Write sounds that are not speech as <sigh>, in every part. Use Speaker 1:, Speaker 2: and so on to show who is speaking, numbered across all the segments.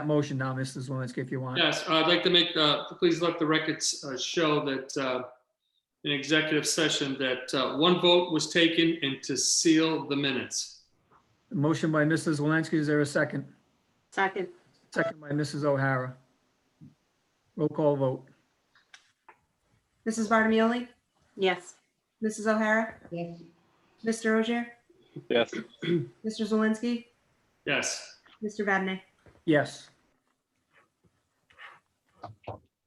Speaker 1: that motion now, Mrs. Zelinski, if you want.
Speaker 2: Yes, I'd like to make, uh, please let the records uh, show that uh, in executive session that uh, one vote was taken and to seal the minutes.
Speaker 1: Motion by Mrs. Zelinski, is there a second?
Speaker 3: Second,
Speaker 1: Second by Mrs. O'Hara. Roll call vote.
Speaker 4: Mrs. Barnamoli?
Speaker 3: yes.
Speaker 4: Mrs. O'Hara?
Speaker 5: Yes.
Speaker 4: Mr. Ogier?
Speaker 6: yes,
Speaker 4: Mr. Zelinski?
Speaker 2: Yes,
Speaker 4: Mr. Vadeney?
Speaker 1: Yes.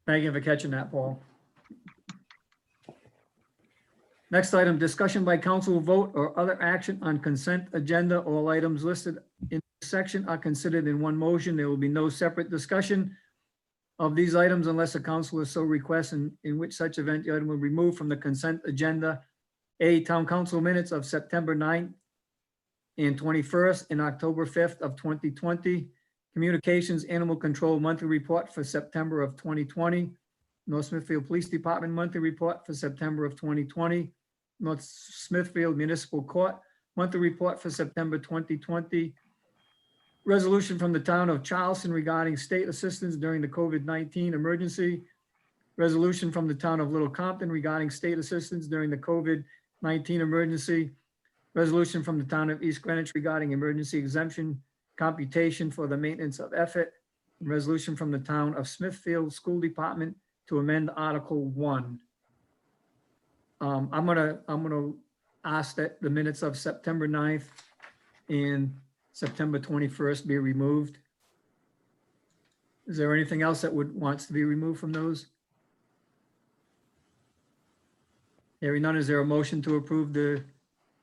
Speaker 1: Thank you for catching that, Paul. Next item, discussion by council vote or other action on consent agenda. All items listed in this section are considered in one motion. There will be no separate discussion of these items unless a councilor so requests, and in which such event the item will be removed from the consent agenda. A, town council minutes of September 9th and 21st and October 5th of 2020. Communications Animal Control Monthly Report for September of 2020. North Smithfield Police Department Monthly Report for September of 2020. North Smithfield Municipal Court Monthly Report for September 2020. Resolution from the Town of Charleston regarding state assistance during the COVID-19 emergency. Resolution from the Town of Little Compton regarding state assistance during the COVID-19 emergency. Resolution from the Town of East Greenwich regarding emergency exemption computation for the maintenance of effort. Resolution from the town of Smithfield School Department to amend Article One. Um, I'm gonna, I'm gonna ask that the minutes of September 9th and September twenty-first be removed. Is there anything else that would, wants to be removed from those? Hearing none, is there a motion to approve the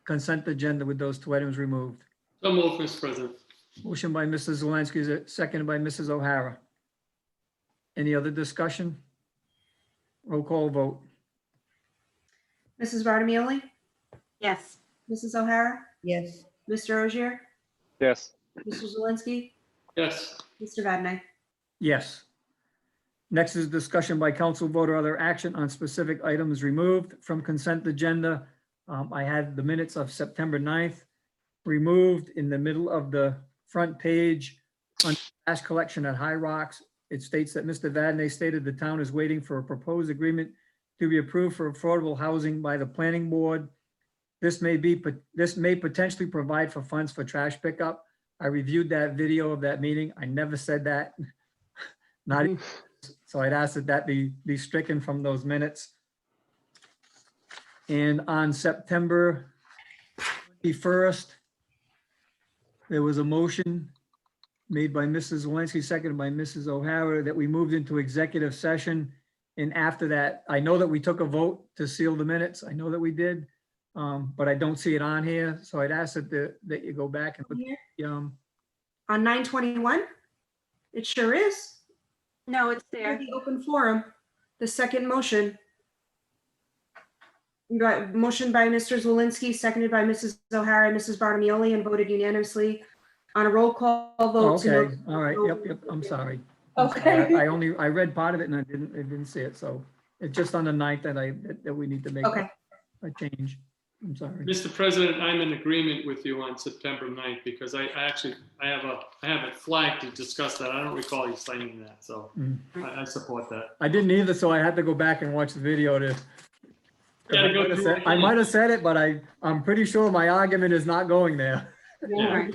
Speaker 1: consent agenda with those two items removed?
Speaker 2: so move, Mr. President.
Speaker 1: Motion by Mrs. Zelinski, is it seconded by Mrs. O'Hara. Any other discussion? Roll call vote.
Speaker 4: Mrs. Barnamoli?
Speaker 3: Yes,
Speaker 4: Mrs. O'Hara?
Speaker 5: Yes.
Speaker 4: Mr. Ogier?
Speaker 6: yes,
Speaker 4: Mr. Zelinski?
Speaker 2: Yes,
Speaker 4: Mr. Vadeney?
Speaker 1: Yes. Next is discussion by council vote or other action on specific items removed from consent agenda. Um, I had the minutes of September 9th removed in the middle of the front page on trash collection at High Rocks. It states that Mr. Vadney stated the town is waiting for a proposed agreement to be approved for affordable housing by the planning board. This may be, this may potentially provide for funds for trash pickup. I reviewed that video of that meeting. I never said that. <laughs> Not, even- so I'd ask that that be, be stricken from those minutes. And on September 21st, there was a motion made by Mrs. Zelinski, seconded by Mrs. O'Hara, that we moved into executive session. And after that, I know that we took a vote to seal the minutes. I know that we did. um, But I don't see it on here, so I'd ask that, the- that you go back and, put the, um,
Speaker 4: On nine twenty-one? It sure is.
Speaker 3: no, it's
Speaker 4: Under
Speaker 3: there.
Speaker 4: the open forum, the second motion. You got motion by Mr. Zelinski, seconded by Mrs. O'Hara and Mrs. Barnamoli, and voted unanimously on a roll call
Speaker 1: oh,
Speaker 4: vote. to
Speaker 1: okay,
Speaker 4: no-
Speaker 1: all right, yep, yep, I'm sorry. I'm sorry. I I only, I read part of it and I didn't, I didn't see it, so it's just on the ninth that I, that- that we need to make
Speaker 4: Okay,
Speaker 1: a a change. I'm sorry.
Speaker 2: Mr. President, I'm in agreement with you on September 9th because I I actually, I have a, I have it flagged to discuss that. I don't recall you signing that, so
Speaker 1: Mm.
Speaker 2: I, I support that.
Speaker 1: I didn't either, so I had to go back and watch the video to.
Speaker 2: Gotta go
Speaker 1: I might have
Speaker 2: through
Speaker 1: said-
Speaker 2: it
Speaker 1: I
Speaker 2: again.
Speaker 1: might have said it, but I, I'm pretty sure my argument is not going there. <laughs>
Speaker 2: Yeah.
Speaker 3: Right.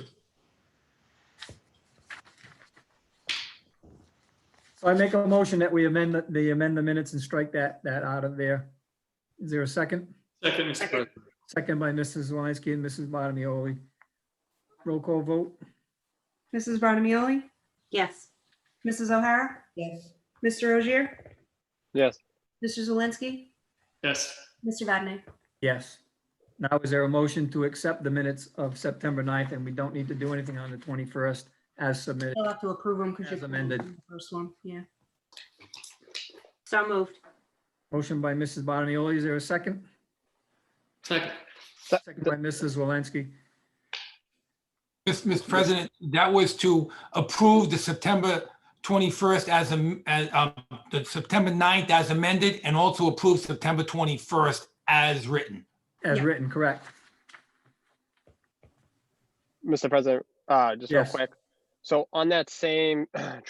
Speaker 1: So I make a motion that we amend, the- the amend the minutes and strike that, that out of there. Is there a second?
Speaker 2: Second, Mr.
Speaker 3: Second.
Speaker 2: President.
Speaker 1: Second by Mrs. Zelinski and Mrs. Bottomoli. Roll call vote?
Speaker 4: Mrs. Barnamoli,
Speaker 3: Yes,
Speaker 4: Mrs. O'Hara,
Speaker 5: Yes.
Speaker 4: Mr. Ogier,
Speaker 6: yes.
Speaker 4: Mr. Zelinski,
Speaker 2: Yes,
Speaker 4: Mr. Vadeney.
Speaker 1: Yes. Now, is there a motion to accept the minutes of September 9th and we don't need to do anything on the 21st as submitted?
Speaker 4: You'll have to approve them because
Speaker 1: As
Speaker 4: you're
Speaker 1: amended.
Speaker 4: First one, yeah.
Speaker 3: so moved.
Speaker 1: Motion by Mrs. Bottomoli. Is there a second?
Speaker 2: second.
Speaker 6: Se-
Speaker 1: Second by Mrs. Zelinski.
Speaker 7: Mr. President, that was to approve the September 21st as, am- as, um, the September 9th as amended, and also approve September 21st as written.
Speaker 1: As
Speaker 4: Yeah.
Speaker 1: written, correct?
Speaker 6: Mr. President, uh, just real
Speaker 1: Yes.
Speaker 6: quick. So on that same <clears throat>